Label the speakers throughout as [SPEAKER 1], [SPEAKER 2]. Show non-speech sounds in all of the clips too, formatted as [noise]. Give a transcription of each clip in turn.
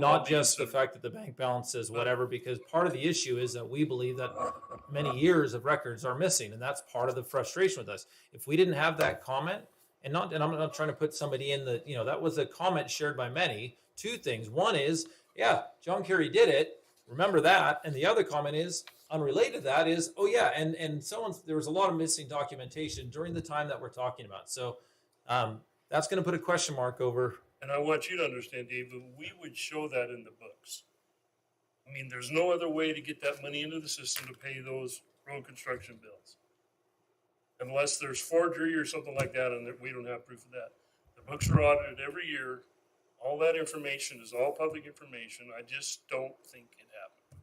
[SPEAKER 1] not just the fact that the bank balance is whatever, because part of the issue is that we believe that many years of records are missing, and that's part of the frustration with us. If we didn't have that comment, and not, and I'm not trying to put somebody in the, you know, that was a comment shared by many. Two things. One is, yeah, John Kerry did it. Remember that. And the other comment is unrelated to that is, oh yeah, and and someone's there was a lot of missing documentation during the time that we're talking about. So um, that's going to put a question mark over
[SPEAKER 2] And I want you to understand, Dave, that we would show that in the books. I mean, there's no other way to get that money into the system to pay those road construction bills. Unless there's forgery or something like that, and that we don't have proof of that. The books are audited every year. All that information is all public information. I just don't think it happened.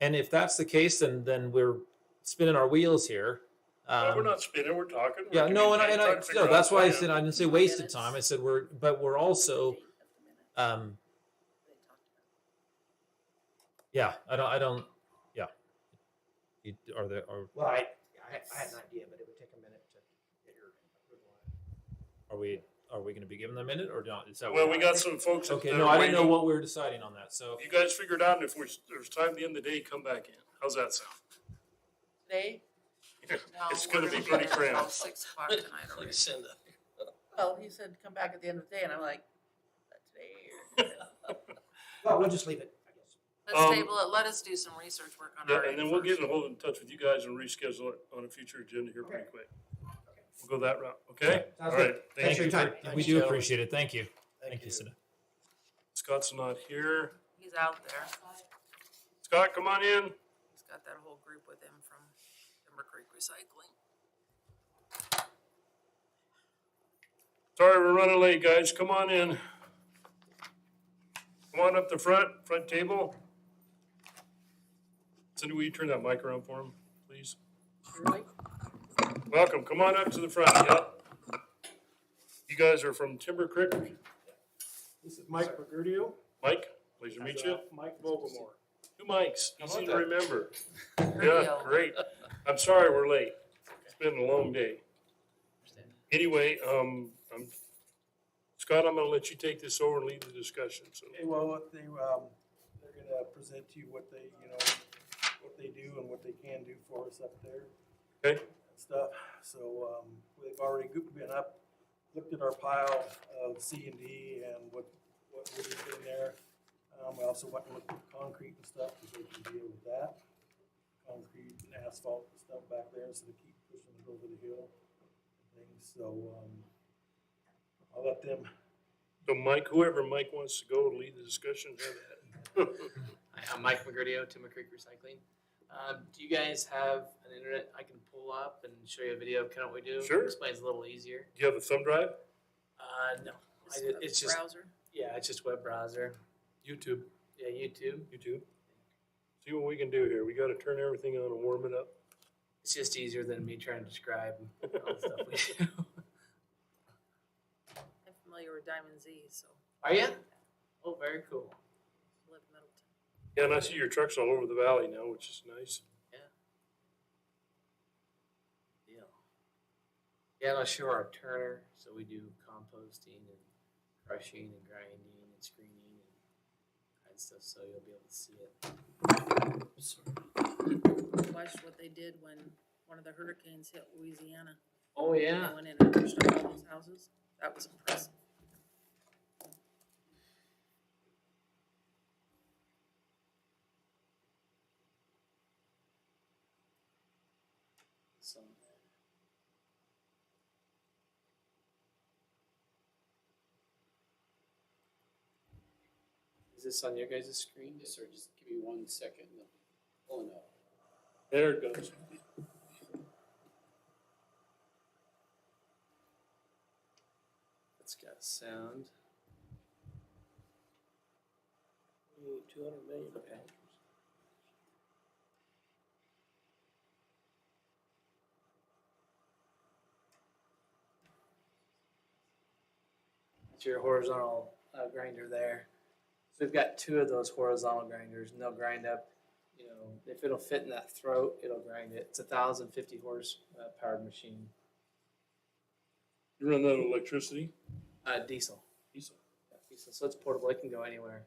[SPEAKER 1] And if that's the case, then then we're spinning our wheels here.
[SPEAKER 2] But we're
[SPEAKER 1] Um,
[SPEAKER 2] not spinning, we're talking. we're
[SPEAKER 1] yeah, no, and I, and I
[SPEAKER 2] communicating, trying
[SPEAKER 1] no,
[SPEAKER 2] to figure
[SPEAKER 1] that's
[SPEAKER 2] out a
[SPEAKER 1] why I
[SPEAKER 2] plan.
[SPEAKER 1] said I didn't say wasted
[SPEAKER 3] Minutes.
[SPEAKER 1] time. I said we're, but we're also, um, yeah, I don't, I don't, yeah. You, are there are
[SPEAKER 4] Well, I, I I had an idea, but it would take a minute to get your approval on it.
[SPEAKER 1] are we are we going to be given a minute or not? Is that
[SPEAKER 2] Well, we got some folks. that
[SPEAKER 1] okay.
[SPEAKER 2] are
[SPEAKER 1] No, I didn't know
[SPEAKER 2] waiting.
[SPEAKER 1] what we were deciding on that. So
[SPEAKER 2] You guys figure it out, and if we're, there's time at the end of the day, come back in. How's that sound? [laughs]
[SPEAKER 3] Today?
[SPEAKER 2] It's gonna be pretty cramped.
[SPEAKER 3] Six
[SPEAKER 5] [laughs]
[SPEAKER 3] o'clock tonight already. Well, he said, come back at the end of the day, and I'm like, "Not today.
[SPEAKER 4] Well, we'll just leave it, I guess.
[SPEAKER 2] Um,
[SPEAKER 6] Let's table it, let us do some research work on
[SPEAKER 2] Yeah,
[SPEAKER 6] our.
[SPEAKER 2] and then we'll get in hold in touch with you guys and reschedule it on a future agenda here pretty quick. We'll go that route, okay? All
[SPEAKER 4] Sounds
[SPEAKER 2] right,
[SPEAKER 4] good.
[SPEAKER 2] thank
[SPEAKER 4] Thanks for
[SPEAKER 2] you.
[SPEAKER 4] your time.
[SPEAKER 1] we
[SPEAKER 4] Thanks,
[SPEAKER 1] do
[SPEAKER 4] gentlemen.
[SPEAKER 1] appreciate it. Thank you. Thank you, Sina.
[SPEAKER 2] Scott's not here.
[SPEAKER 6] He's out there.
[SPEAKER 2] Scott, come on in.
[SPEAKER 6] He's got that whole group with him from Timber Creek Recycling.
[SPEAKER 2] Sorry, we're running late, guys. Come on in. Come on up the front, front table. Cindy, will you turn that mic around for him, please?
[SPEAKER 3] Really?
[SPEAKER 2] Welcome, come on up to the front, yep. You guys are from Timber Creek,
[SPEAKER 7] This is Mike uh, Bagurdio.
[SPEAKER 2] Mike, pleasure to meet you.
[SPEAKER 7] Mike Vogelmore.
[SPEAKER 2] Two mics, easy
[SPEAKER 7] about
[SPEAKER 2] to
[SPEAKER 7] that?
[SPEAKER 2] remember. Yeah, great. I'm sorry we're late. It's been a long day. Anyway, um, I'm, Scott, I'm gonna let you take this over and lead the discussion, so.
[SPEAKER 7] Okay, well, what they, um, they're gonna present to you what they, you know, what they do and what they can do for us up there.
[SPEAKER 2] Okay.
[SPEAKER 7] and Stuff, so, um, they've already go- been up, looked at our pile of C and D and what, what would have been there. Um, we also went and looked at concrete and stuff, because they can deal with that. Concrete and asphalt and stuff back there, so they keep pushing it over the hill and things, so, um, I'll let them
[SPEAKER 2] So Mike, whoever Mike wants to go and lead the discussion, have at it.
[SPEAKER 5] Hi, I'm Mike McGurdio, Timber Creek Recycling. Um, do you guys have an internet I can pull up and show you a video of kind of what we do?
[SPEAKER 2] Sure.
[SPEAKER 5] Explains a little easier.
[SPEAKER 2] Do you have a thumb drive?
[SPEAKER 5] Uh, no, I did- it's just
[SPEAKER 3] Browser.
[SPEAKER 5] yeah, it's just web browser.
[SPEAKER 2] YouTube.
[SPEAKER 5] Yeah, YouTube.
[SPEAKER 2] YouTube. See what we can do here. We gotta turn everything on and warm it up.
[SPEAKER 5] It's just easier than me trying to describe [laughs] all the stuff we do.
[SPEAKER 6] I'm familiar with Diamond Z, so
[SPEAKER 5] Are you? Oh, very cool.
[SPEAKER 6] I live in Middleton.
[SPEAKER 2] Yeah, and I see your trucks all over the valley now, which is nice.
[SPEAKER 5] Yeah. Yeah, and I show our turner. So we do composting and crushing and grinding and screening and kind of stuff. So you'll be able to see it.
[SPEAKER 3] Watched what they did when one of the hurricanes hit Louisiana.
[SPEAKER 5] Oh yeah.
[SPEAKER 3] They went in and pushed up all those houses. That was impressive.
[SPEAKER 5] So. Is this on your guys' screen?
[SPEAKER 8] Yes, sir, just give me one second, and I'm pulling up.
[SPEAKER 2] There it goes.
[SPEAKER 5] It's got sound.
[SPEAKER 8] Two hundred million pounds.
[SPEAKER 5] It's your horizontal uh, grinder there. So we've got two of those horizontal grinders, and they'll grind up. You know, if it'll fit in that throat, it'll grind it. It's a thousand fifty horse uh, powered machine.
[SPEAKER 2] You run that on electricity?
[SPEAKER 5] Uh, diesel.
[SPEAKER 2] Diesel.
[SPEAKER 5] Yeah, diesel. So it's portable. It can go anywhere.